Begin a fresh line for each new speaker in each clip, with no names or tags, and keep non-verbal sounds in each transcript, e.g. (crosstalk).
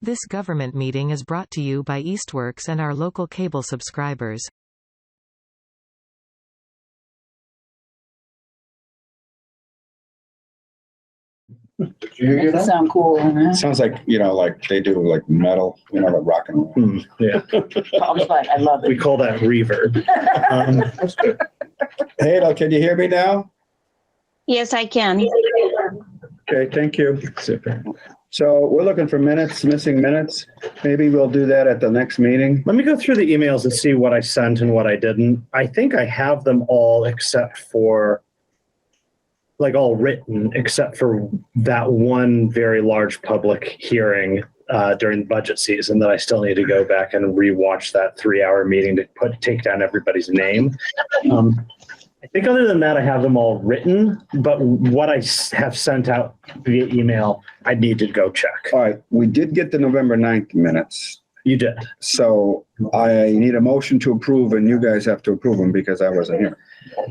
This government meeting is brought to you by Eastworks and our local cable subscribers.
Did you hear
That
that?
sound cool, huh?
Sounds like, you know, like they do like metal, you know, like rock and roll.
Hmm, yeah,
(laughs) I was like, I love
we
it.
call that reverb.
Um, Hadel, can you hear me now?
Yes, I can.
Okay, thank you.
Super.
So we're looking for minutes, missing minutes. Maybe we'll do that at the next meeting.
Let me go through the emails and see what I sent and what I didn't. I think I have them all except for, like, all written, except for that one very large public hearing uh, during budget season that I still need to go back and rewatch that three-hour meeting to put, take down everybody's name. Um, I think other than that, I have them all written, but what I s- have sent out via email, I need to go check.
All right, we did get the November 9th minutes.
You did.
So I need a motion to approve and you guys have to approve them because I wasn't here.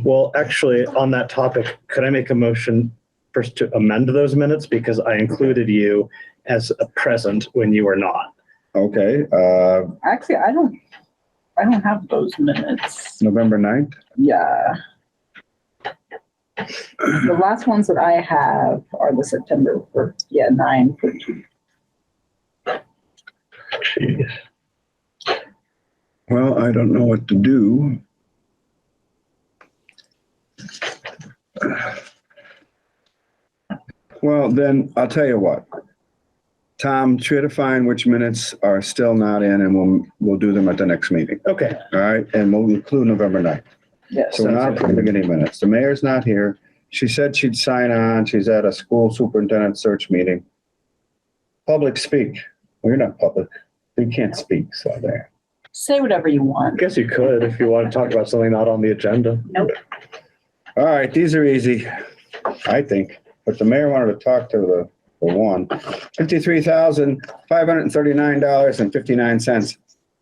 Well, actually, on that topic, could I make a motion first to amend those minutes because I included you as a present when you were not?
Okay, uh,
Actually, I don't, I don't have those minutes.
November 9th.
Yeah. The last ones that I have are the September, for yeah, nine. for two.
Well, I don't know what to do. Well, then I'll tell you what. Tom, try to find which minutes are still not in and we'll, we'll do them at the next meeting.
Okay,
All right, and we'll include November 9th.
Yes.
So we're not approving any minutes. The mayor's not here. She said she'd sign on. She's at a school superintendent search meeting. Public speak. We're not public. We can't speak, so there.
Say whatever you
I
want.
guess you could if you want to talk about something not on the agenda.
All right, these are easy, I think, but the mayor wanted to talk to the, the one. Fifty-three thousand, five hundred and thirty-nine dollars and fifty-nine cents.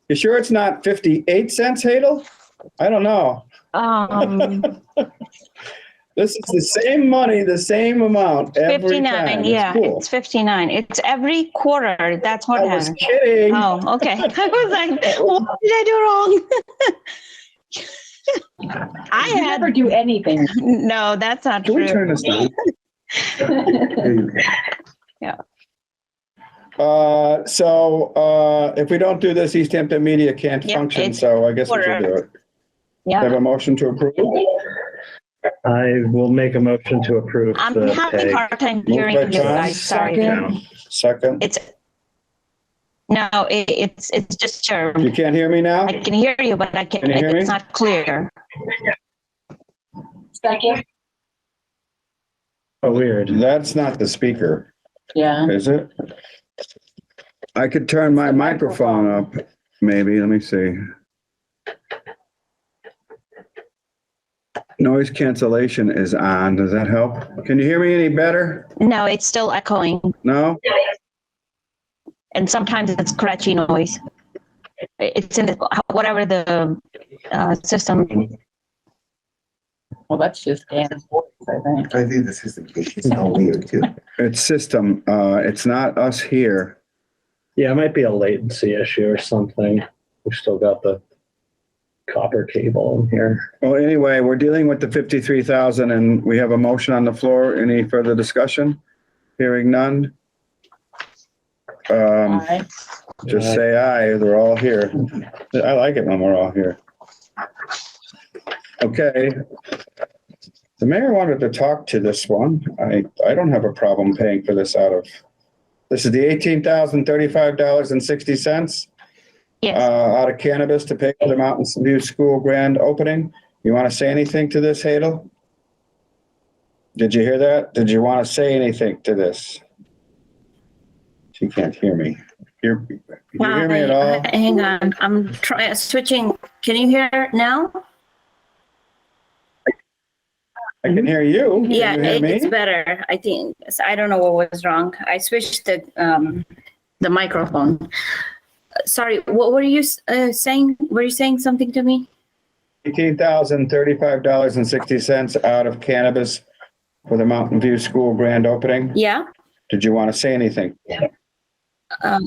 You sure it's not fifty-eight cents, Hadel? I don't know. (laughs)
Um,
This is the same money, the same amount every time.
59,
It's
yeah,
cool.
it's 59. It's every quarter, that's
I
what
was
happens.
kidding.
Oh, okay. (laughs) I
(laughs)
was like, what did I do wrong? (laughs) I
You never
had,
do
(laughs)
anything.
no, that's not
Can we
true.
turn this down?
Yeah.
Uh, so, uh, if we don't do this, East Hampton Media can't
Yeah,
function,
it's-
so I guess we should do it.
Yeah,
Have a motion to approve?
I will make a motion to approve
I'm
the
having a
pay.
hard time
by
hearing you
John,
guys, sorry.
second.
account.
Second,
It's, no, it- it's, it's just, sure.
you can't hear me now?
I can hear you, but I can't,
Can you hear me?
it's not clear.
Second?
Oh, weird.
That's not the speaker,
Yeah.
is it? I could turn my microphone up, maybe, let me see. Noise cancellation is on, does that help? Can you hear me any better?
No, it's still echoing.
No?
and sometimes it's scratchy noise. It's in the, whatever the uh, system.
Well, that's just Dan's voice, I think.
I think this is the case. It's all weird too.
It's system, uh, it's not us here.
Yeah, it might be a latency issue or something. We've still got the copper cable in here.
Well, anyway, we're dealing with the fifty-three thousand and we have a motion on the floor. Any further discussion? Hearing none? Um,
Aye.
just say aye, they're all here. I like it when we're all here. Okay. The mayor wanted to talk to this one. I, I don't have a problem paying for this out of, this is the eighteen thousand thirty-five dollars and sixty cents? uh,
Yes,
out of cannabis to pay for the Mountain View School grand opening. You want to say anything to this, Hadel? Did you hear that? Did you want to say anything to this? She can't hear me. You're, you hear me at
Uh,
all?
Hang on, I'm trying, switching. Can you hear now?
I can hear you. Can
Yeah,
you hear
it- it's
me?
better. I think, I don't know what was wrong. I switched the, um, the microphone. Uh, Sorry, what were you, s- uh, saying? Were you saying something to me?
Eighteen thousand thirty-five dollars and sixty cents out of cannabis for the Mountain View School grand opening.
Yeah?
Did you want to say anything?
Um,